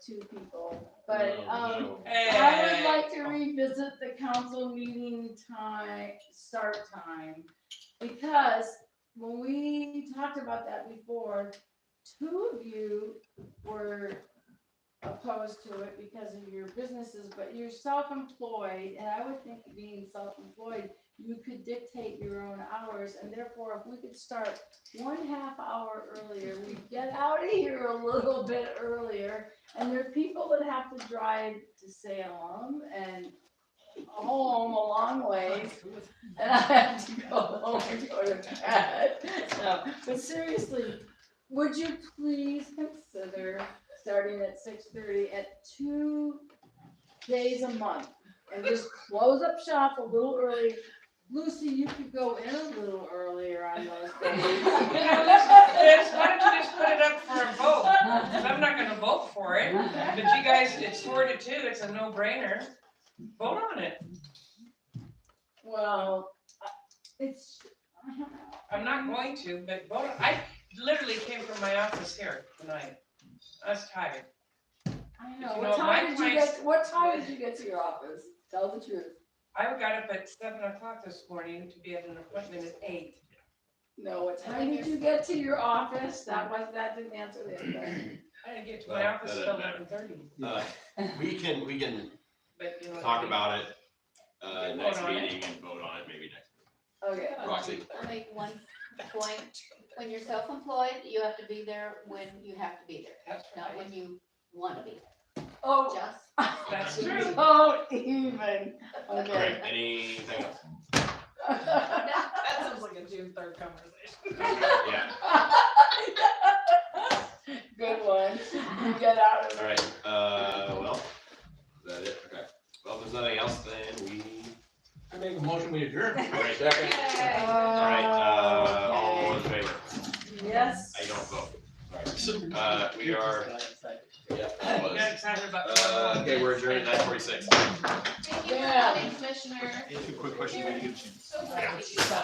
two people, but, No, um, no. I would like to revisit the council meeting time, start time, because when we talked about that before, two of you were opposed to it because of your businesses, but you're self-employed, and I would think being self-employed, you could dictate your own hours, and therefore, if we could start one half hour earlier, we'd get out of here a little bit earlier, and there are people that have to drive to Salem and home a long ways. And I have to go home and go to bed. So, but seriously, would you please consider starting at six thirty at two days a month? And just close up shop a little early. Lucy, you could go in a little earlier on those days. Yes, why don't you just put it up for a vote? 'Cause I'm not gonna vote for it, but you guys, it's four to two, it's a no-brainer. Vote on it. Well, I- it's, I don't know. I'm not going to, but vote, on- I literally came from my office here tonight. I was tired. I If know, you what know, time my did you place- get, what time did you get to your office? Tell the truth. I got up at seven o'clock this morning to be at an appointment at eight. No, what time did you get to your office? That was, that didn't answer the question. I didn't get to Well, my that office till doesn't matter. eleven thirty, Uh, We can, we can but you know. what I talk mean? about it, uh, Vote next on it. meeting and vote on it maybe next. Okay, Roxy. I'll make one point, when you're self-employed, you have to be there when you have to be there, That's not right. when you wanna be there, oh, just. That's Okay. true. don't even, All right, okay. anything else? That sounds like a June third conversation. Yeah, Good one, you get out of all right, uh, well, is that it? Okay. Well, if there's nothing else, then we, I make a motion, we adjourn. Right. Second. it. Oh. all right, uh, all in favor? Yes. I don't vote. All right, so, uh, we are, yeah, all You got those. excited about. Uh, okay, we're adjourned at nine forty-six. Thank you for Yeah. coming, Commissioner. Quick question, when you get a chance. So glad Yeah. that you-